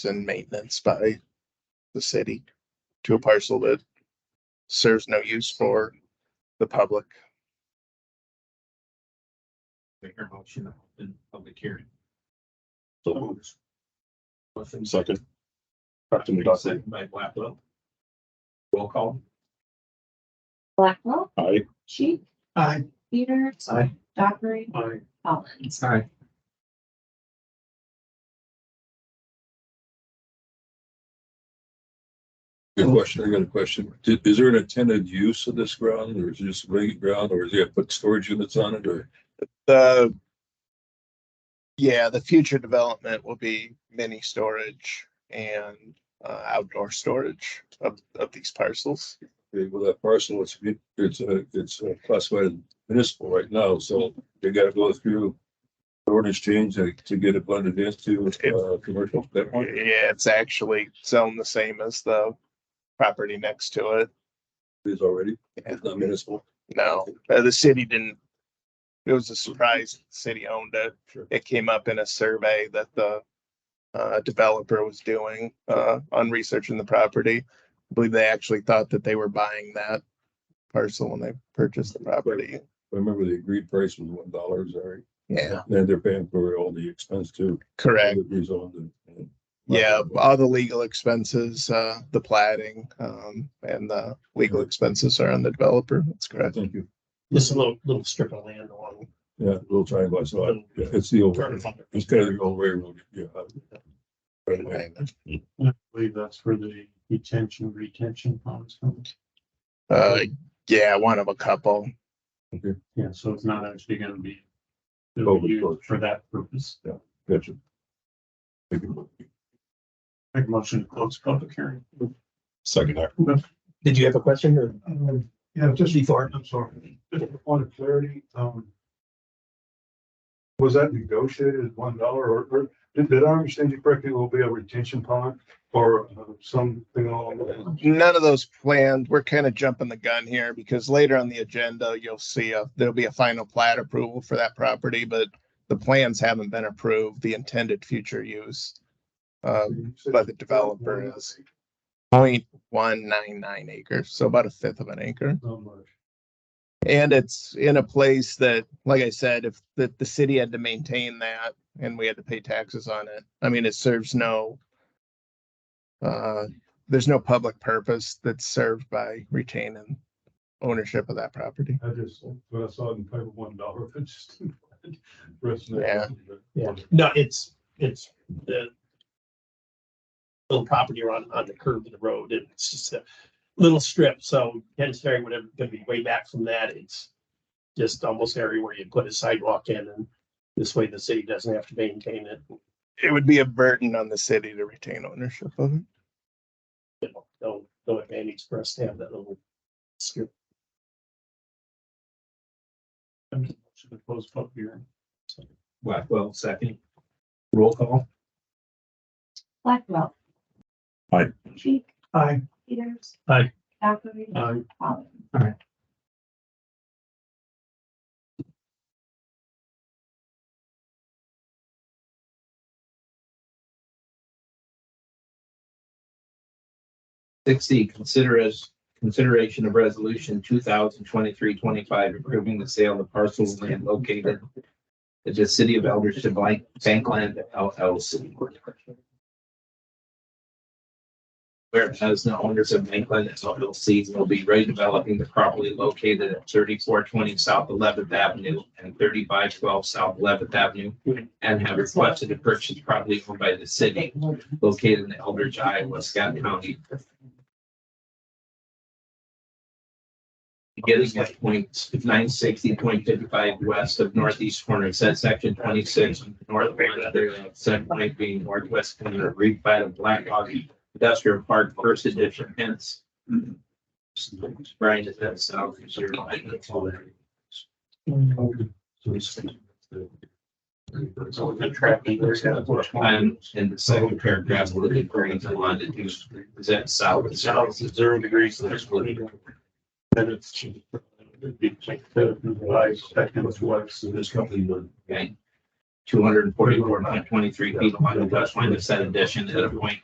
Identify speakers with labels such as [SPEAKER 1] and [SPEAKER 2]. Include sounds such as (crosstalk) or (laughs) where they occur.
[SPEAKER 1] and maintenance by the city to a parcel that serves no use for the public.
[SPEAKER 2] Make a motion to open public hearing.
[SPEAKER 3] So moved. Second. Dr. McDuffie,
[SPEAKER 2] Second by Blackwell. Roll call.
[SPEAKER 4] Blackwell,
[SPEAKER 3] aye.
[SPEAKER 4] Sheik,
[SPEAKER 2] Aye.
[SPEAKER 4] Peters,
[SPEAKER 2] Aye.
[SPEAKER 4] Dockery,
[SPEAKER 2] Aye.
[SPEAKER 4] Collins.
[SPEAKER 2] Aye.
[SPEAKER 5] Good question. I got a question. Is, is there an intended use of this ground or is it just vacant ground or is it put storage units on it or?
[SPEAKER 1] The yeah, the future development will be mini storage and uh, outdoor storage of, of these parcels.
[SPEAKER 5] Okay, Well, that parcel, it's, it's, uh, it's uh, classified as municipal right now, so they gotta go through ordinance change to, to get it blended into, uh, commercial. at that point?
[SPEAKER 1] Yeah, it's actually zoned the same as the property next to it.
[SPEAKER 5] It is already, it's not municipal.
[SPEAKER 1] No, uh, the city didn't. It was a surprise. The city owned it.
[SPEAKER 5] Sure.
[SPEAKER 1] It came up in a survey that the uh, developer was doing uh, on researching the property. I believe they actually thought that they were buying that parcel when they purchased the property.
[SPEAKER 5] I remember the agreed price was one dollar, sorry.
[SPEAKER 1] Yeah,
[SPEAKER 5] And they're paying for all the expense too.
[SPEAKER 1] correct.
[SPEAKER 5] Rezoned and-
[SPEAKER 1] Yeah, all the legal expenses, uh, the plating, um, and the legal expenses are on the developer. That's correct.
[SPEAKER 5] Thank you.
[SPEAKER 6] Just a little, little strip of land along.
[SPEAKER 5] Yeah, little triangle, I saw it. Yeah, It's the old,
[SPEAKER 6] Turner Farm.
[SPEAKER 5] it's kind of the old railroad, yeah. Right away.
[SPEAKER 1] Right.
[SPEAKER 2] I believe that's where the detention, retention ponds come.
[SPEAKER 1] Uh, yeah, one of a couple.
[SPEAKER 2] Yeah, so it's not actually gonna be
[SPEAKER 5] Oh, of
[SPEAKER 2] used
[SPEAKER 5] course.
[SPEAKER 2] for that purpose.
[SPEAKER 5] Gotcha. Thank you.
[SPEAKER 2] Make a motion to close public hearing.
[SPEAKER 3] Second, aye.
[SPEAKER 6] Did you have a question or?
[SPEAKER 2] Um, Yeah, just before, I'm sorry, just a point of clarity, um. Was that negotiated at one dollar or, or did, did I understand you correctly, will be a retention pond or uh, something along that?
[SPEAKER 1] none of those planned. We're kind of jumping the gun here because later on the agenda, you'll see a, there'll be a final plat approval for that property, but the plans haven't been approved, the intended future use. Uh, by the developer is point one nine nine acres, so about a fifth of an acre. And it's in a place that, like I said, if the, the city had to maintain that and we had to pay taxes on it, I mean, it serves no. Uh, there's no public purpose that's served by retaining ownership of that property.
[SPEAKER 5] I just, when I saw it in paper,
[SPEAKER 2] (laughs)
[SPEAKER 5] one dollar, I just.
[SPEAKER 1] Yeah.
[SPEAKER 6] Yeah, no, it's, it's the little property on, on the curve of the road. and It's just a little strip, so Ken's Ferry would have, gonna be way back from that. It's just almost area where you put a sidewalk in and this way the city doesn't have to maintain it.
[SPEAKER 1] It would be a burden on the city to retain ownership of it.
[SPEAKER 6] you know, No, no advantage for us to have that little strip.
[SPEAKER 2] Should have closed public hearing. Blackwell, second. Roll call.
[SPEAKER 4] Blackwell.
[SPEAKER 3] Aye.
[SPEAKER 4] Sheik,
[SPEAKER 2] Aye.
[SPEAKER 4] Peters.
[SPEAKER 2] Aye.
[SPEAKER 4] Dockery,
[SPEAKER 2] Aye.
[SPEAKER 4] Collins.
[SPEAKER 7] Sixty, consider as consideration of resolution 2023-25 approving the sale of parcel of land located at the city of Eldership Bank, Bankland LLC. Whereas the owners of Bankland LLC will be redeveloping the property located at thirty-four twenty South Eleventh Avenue and thirty-five twelve South Eleventh Avenue and have requested to purchase property owned by the city located in Eldridge, Iowa, Scott County, beginning at point nine sixty point fifty-five west of northeast corner, said section twenty-six, north one thereof, said point being northwest corner, read by the Black Hawk Industrial Park, first edition, hence. Brian, is that south? is your line, that's all there.
[SPEAKER 2] So the traffic.
[SPEAKER 7] And in the second paragraph, we're referring to longitude, is that south?
[SPEAKER 2] It's south is zero degrees. there's plenty of- Then it's. it'd be like the- the Five seconds, what's this company would.
[SPEAKER 7] Okay. two hundred and forty-four point twenty-three feet along the west line of said addition at a point